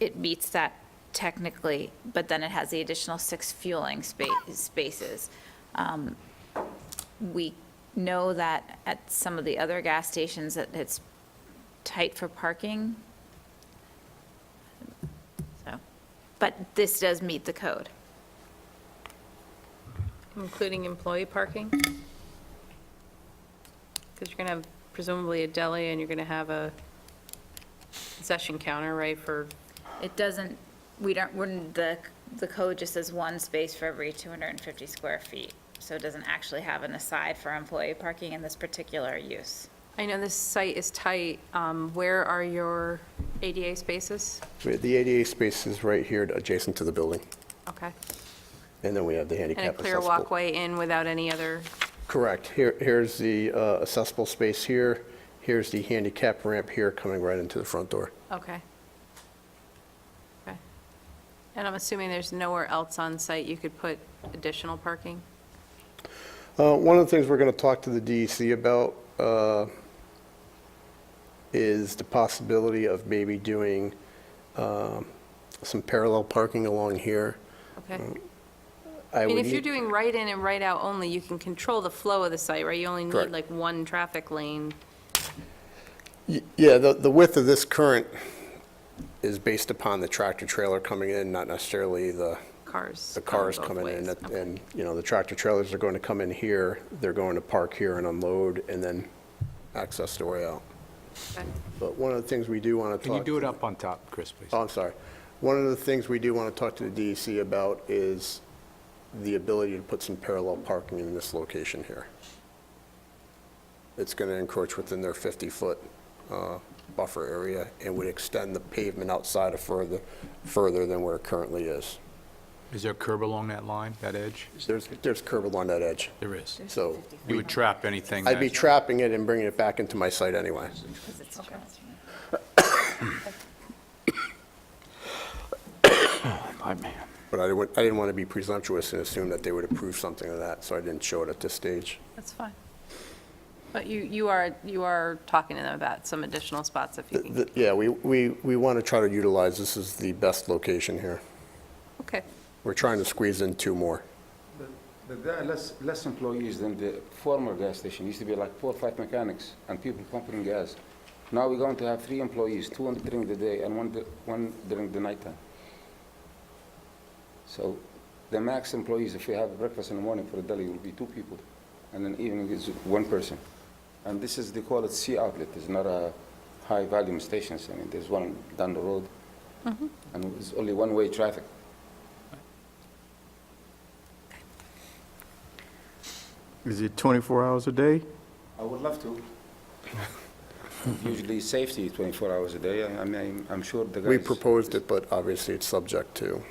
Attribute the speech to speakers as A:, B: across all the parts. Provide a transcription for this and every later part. A: it meets that technically, but then it has the additional six fueling spa- spaces. Um, We know that at some of the other gas stations that it's tight for parking. So, but this does meet the code.
B: Including employee parking? Because you're going to have presumably a deli and you're going to have a concession counter, right, for,
A: It doesn't, we don't, wouldn't, the, the code just says one space for every 250 square feet. So it doesn't actually have an aside for employee parking in this particular use.
B: I know this site is tight. Um, Where are your ADA spaces?
C: The ADA space is right here adjacent to the building,
B: Okay.
C: and then we have the handicap
B: And a
C: accessible.
B: clear walkway in without any other,
C: Correct. Here, here's the uh, accessible space here, here's the handicap ramp here coming right into the front door.
B: okay. Okay. And I'm assuming there's nowhere else on site you could put additional parking?
C: Uh, One of the things we're going to talk to the DEC about uh, is the possibility of maybe doing um, some parallel parking along here.
B: Okay.
C: I
B: I mean,
C: would
B: if you're
C: need-
B: doing right in and right out only, you can control the flow of the site, right? You only need
C: Correct.
B: like one traffic lane.
C: Y- Yeah, the, the width of this current is based upon the tractor trailer coming in, not necessarily the,
B: cars.
C: the cars
B: both
C: coming in.
B: ways.
C: And-
B: Okay.
C: And, you know, the tractor trailers are going to come in here, they're going to park here and unload, and then access the way out.
B: Okay.
C: But one of the things we do want to
D: Can
C: talk.
D: you do it up on top, Chris, please?
C: Oh, I'm sorry. One of the things we do want to talk to the DEC about is the ability to put some parallel parking in this location here. It's going to encroach within their 50-foot uh, buffer area and would extend the pavement outside of further, further than where it currently is.
D: Is there a curb along that line, that edge?
C: There's, there's curb along that edge,
D: There is.
C: so
D: You would trap anything
C: I'd be
D: that,
C: trapping it and bringing it back into my site anyway.
A: Because it's transferred.
D: my man.
C: But I didn't, I didn't want to be presumptuous and assume that they would approve something of that, so I didn't show it at this stage.
B: That's fine. But you, you are, you are talking to them about some additional spots if you
C: Th-
B: can.
C: th- Yeah, we, we, we want to try to utilize, this is the best location here.
B: Okay.
C: We're trying to squeeze in two more.
E: But there are less, less employees than the former gas station. Used to be like four or five mechanics and people pumping gas. Now we're going to have three employees, two on- during the day and one, du- one during the nighttime. So the max employees, if we have breakfast in the morning for a deli, will be two people. And then evening is one person. And this is, they call it C outlet. It's not a high volume stations. I mean, there's one down the road. And it's only one-way traffic.
F: Is it 24 hours a day?
E: I would love to. Usually safety is 24 hours a day. I I mean, I'm- I'm sure the guys.
C: We proposed it, but obviously it's subject to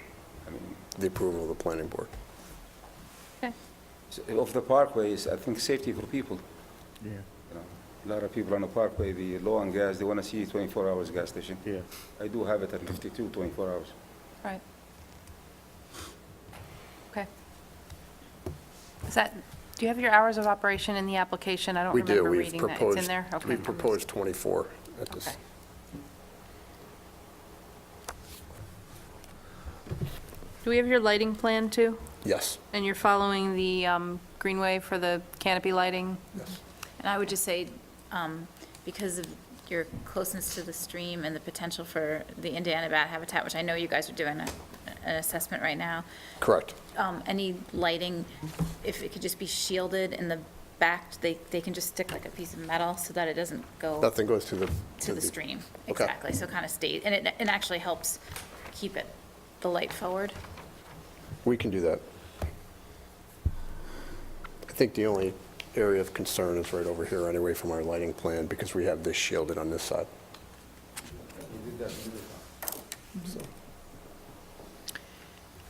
E: I mean,
C: the approval of the planning board.
E: s- Of the parkways, I think safety for people.
F: Yeah,
E: you know. A lot of people on the parkway, the low on gas, they want to see 24 hours gas station.
F: yeah.
E: I do have it at 52, 24 hours.
B: Right. Okay. Is that, do you have your hours of operation in the application? I don't
C: We do,
B: remember
C: we've
B: reading that. It's in
C: proposed,
B: there? Okay.
C: we proposed 24 at this.
B: Okay. Do we have your lighting plan too?
C: Yes,
B: And you're following the um, greenway for the canopy lighting?
C: yes.
A: And I would just say, um, because of your closeness to the stream and the potential for the Indiana bat habitat, which I know you guys are doing a, an assessment right now,
C: Correct.
A: um, any lighting, if it could just be shielded in the back, they, they can just stick like a piece of metal so that it doesn't go
C: Nothing goes to the.
A: to the stream.
C: Okay.
A: Exactly, so kind of stays, and it, it actually helps keep it, the light forward.
C: We can do that. I think the only area of concern is right over here anyway from our lighting plan because we have this shielded on this side.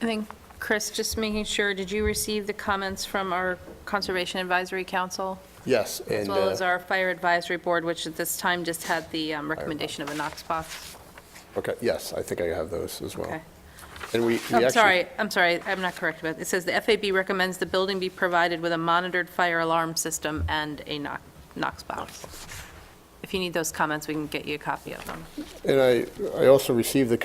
B: I think, Chris, just making sure, did you receive the comments from our Conservation Advisory Council?
C: Yes, and.
B: As well as
C: uh,
B: our Fire Advisory Board, which at this time just had the um, recommendation of a Knox box?
C: Okay, yes, I think I have those as well.
B: Okay.
C: And we, we
B: Oh, I'm
C: actually,
B: sorry, I'm sorry, I'm not correct about, it says the FAB recommends the building be provided with a monitored fire alarm system and a Knox- Knox box. If you need those comments, we can get you a copy of them.
C: and I, I also received the